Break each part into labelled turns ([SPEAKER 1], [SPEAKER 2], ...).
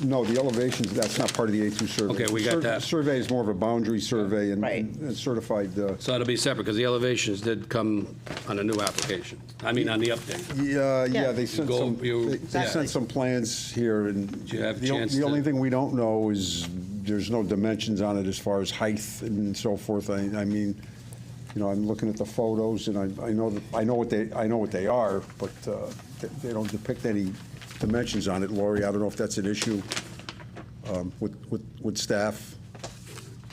[SPEAKER 1] No, the elevations, that's not part of the A2 survey.
[SPEAKER 2] Okay, we got
[SPEAKER 1] Sur-
[SPEAKER 2] that.
[SPEAKER 1] Survey is more of a boundary survey and-
[SPEAKER 3] Right.
[SPEAKER 1] and certified, uh,
[SPEAKER 2] So that'll be separate, because the elevations did come on a new application, I mean, on the update.
[SPEAKER 1] yeah, yeah,
[SPEAKER 3] Yeah.
[SPEAKER 1] they sent
[SPEAKER 2] Go-
[SPEAKER 1] some,
[SPEAKER 2] you-
[SPEAKER 1] they- they
[SPEAKER 2] Exactly.
[SPEAKER 1] sent some plans here and.
[SPEAKER 2] you have a
[SPEAKER 1] the o-
[SPEAKER 2] chance
[SPEAKER 1] The only
[SPEAKER 2] to-
[SPEAKER 1] thing we don't know is, there's no dimensions on it as far as height and so forth. I, I mean, you know, I'm looking at the photos and I, I know, that- I know what they, I know what they are, but uh, they- they don't depict any dimensions on it. Lori, I don't know if that's an issue um, with, with, with staff.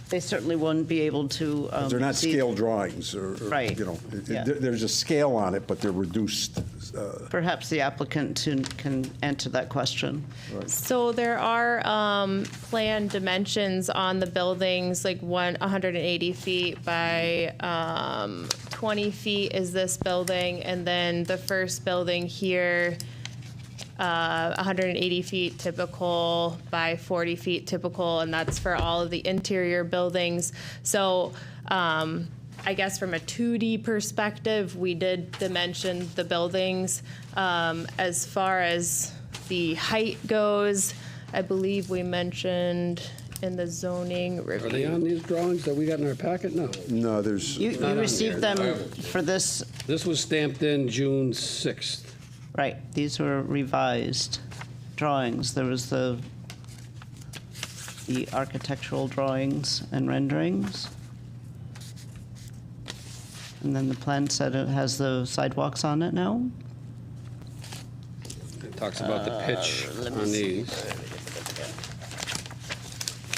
[SPEAKER 3] They certainly wouldn't be able to. um,
[SPEAKER 1] They're not
[SPEAKER 3] see-
[SPEAKER 1] scale drawings, or, or,
[SPEAKER 3] Right.
[SPEAKER 1] you know, it-
[SPEAKER 3] Yeah.
[SPEAKER 1] it- there's a scale on it, but they're reduced. uh,
[SPEAKER 3] Perhaps the applicant to- can answer that question.
[SPEAKER 4] So there are um, planned dimensions on the buildings, like one, 180 feet by um, 20 feet is this building, and then the first building here, uh, 180 feet typical by 40 feet typical, and that's for all of the interior buildings. So um, I guess from a 2D perspective, we did dimension the buildings. Um, As far as the height goes, I believe we mentioned in the zoning
[SPEAKER 2] Are they
[SPEAKER 4] review.
[SPEAKER 2] on these drawings that we got in our packet? No.
[SPEAKER 1] No, there's,
[SPEAKER 3] You
[SPEAKER 2] Not
[SPEAKER 3] you
[SPEAKER 2] on
[SPEAKER 3] received
[SPEAKER 2] there.
[SPEAKER 3] them for this,
[SPEAKER 2] This was stamped in June 6th.
[SPEAKER 3] right, these were revised drawings. There was the, the architectural drawings and renderings. And then the plan said it has the sidewalks on it now?
[SPEAKER 2] It talks about the pitch on these.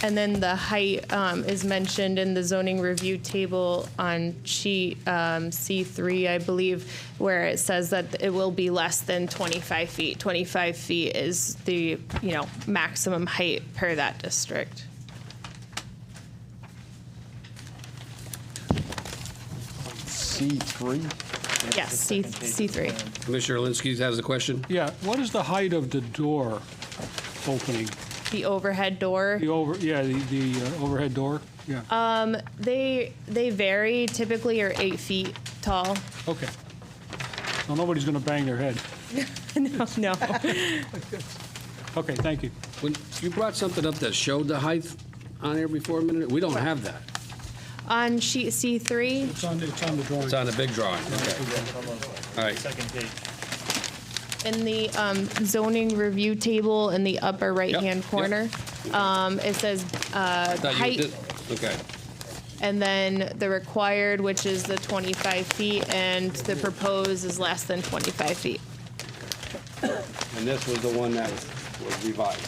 [SPEAKER 4] And then the height um, is mentioned in the zoning review table on sheet um, C3, I believe, where it says that it will be less than 25 feet. 25 feet is the, you know, maximum height per that district.
[SPEAKER 1] C3,
[SPEAKER 4] Yes, C, C3.
[SPEAKER 2] Commissioner Alinsky has a question?
[SPEAKER 5] Yeah, what is the height of the door opening?
[SPEAKER 4] The overhead door.
[SPEAKER 5] The over, yeah, the, the uh, overhead door? Uh, Yeah,
[SPEAKER 4] They, they vary typically are eight feet tall.
[SPEAKER 5] okay. So nobody's going to bang their head.
[SPEAKER 4] No, no.
[SPEAKER 5] Okay, thank you.
[SPEAKER 2] When- You brought something up that showed the height on here before a minute? We don't have that.
[SPEAKER 4] On sheet C3,
[SPEAKER 5] It's on, it's on the drawing.
[SPEAKER 2] It's on the big drawing. Okay. All right.
[SPEAKER 6] Second page.
[SPEAKER 4] In the um, zoning review table in the upper right-hand
[SPEAKER 2] yep.
[SPEAKER 4] corner, um, it says
[SPEAKER 2] I thought you
[SPEAKER 4] Height.
[SPEAKER 2] did- Okay.
[SPEAKER 4] and then the required, which is the 25 feet, and the proposed is less than 25 feet.
[SPEAKER 2] And this was the one that was revised.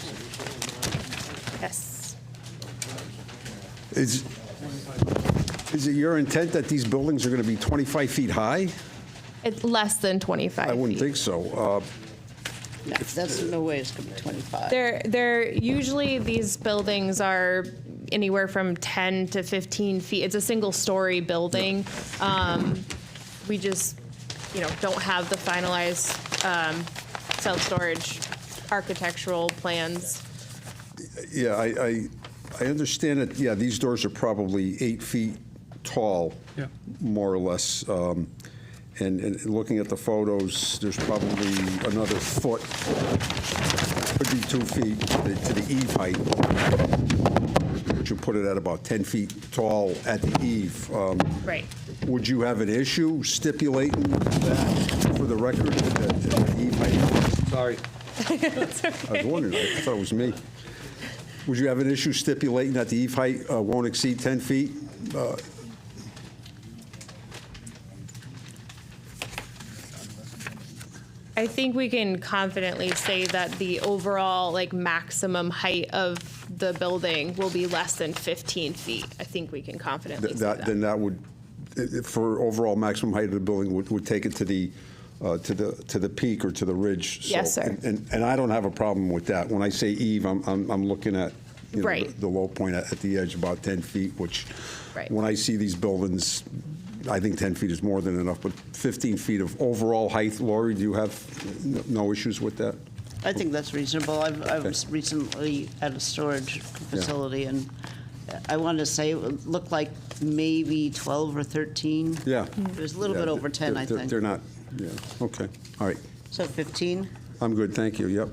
[SPEAKER 4] Yes.
[SPEAKER 1] is, is it your intent that these buildings are going to be 25 feet high?
[SPEAKER 4] It's less than 25
[SPEAKER 1] I wouldn't
[SPEAKER 4] feet.
[SPEAKER 1] think so. Uh,
[SPEAKER 3] No, That's no way it's going to be 25.
[SPEAKER 4] They're, they're, usually these buildings are anywhere from 10 to 15 feet. It's a single-story building. Um, We just, you know, don't have the finalized um, self-storage architectural plans.
[SPEAKER 1] Yeah, I, I, I understand that, yeah, these doors are probably eight feet tall,
[SPEAKER 5] Yeah.
[SPEAKER 1] more or less. Um, And, and looking at the photos, there's probably another foot, could be two feet to the eave height. Which would put it at about 10 feet tall at the eave. Um,
[SPEAKER 4] Right.
[SPEAKER 1] Would you have an issue stipulating that for the record, that the eave height
[SPEAKER 2] Sorry.
[SPEAKER 1] I was wondering, I thought it was me. Would you have an issue stipulating that the eve height uh, won't exceed 10 feet? Uh,
[SPEAKER 4] I think we can confidently say that the overall, like, maximum height of the building will be less than 15 feet. I think we can confidently
[SPEAKER 1] th-
[SPEAKER 4] say
[SPEAKER 1] That, then
[SPEAKER 4] that.
[SPEAKER 1] that would, i- i- for overall maximum height of the building, would, would take it to the, uh, to the, to the peak or to the ridge. so-
[SPEAKER 4] Yes, sir.
[SPEAKER 1] and- And, and I don't have a problem with that. When I say eve, I'm, I'm, I'm looking at, you know,
[SPEAKER 4] Right.
[SPEAKER 1] the- the low point at, at the edge, about 10 feet, which,
[SPEAKER 4] Right.
[SPEAKER 1] when I see these buildings, I think 10 feet is more than enough, but 15 feet of overall height, Lori, do you have n- no issues with that?
[SPEAKER 3] I think that's reasonable. I've, I
[SPEAKER 1] Okay.
[SPEAKER 3] was recently at a storage facility, and I want to say it looked like maybe 12 or 13.
[SPEAKER 1] Yeah.
[SPEAKER 3] It was a little
[SPEAKER 1] Yeah,
[SPEAKER 3] bit over 10,
[SPEAKER 1] they're-
[SPEAKER 3] I
[SPEAKER 1] they're-
[SPEAKER 3] think.
[SPEAKER 1] They're not, yeah, okay, all right.
[SPEAKER 3] So 15?
[SPEAKER 1] I'm good, thank you, yep.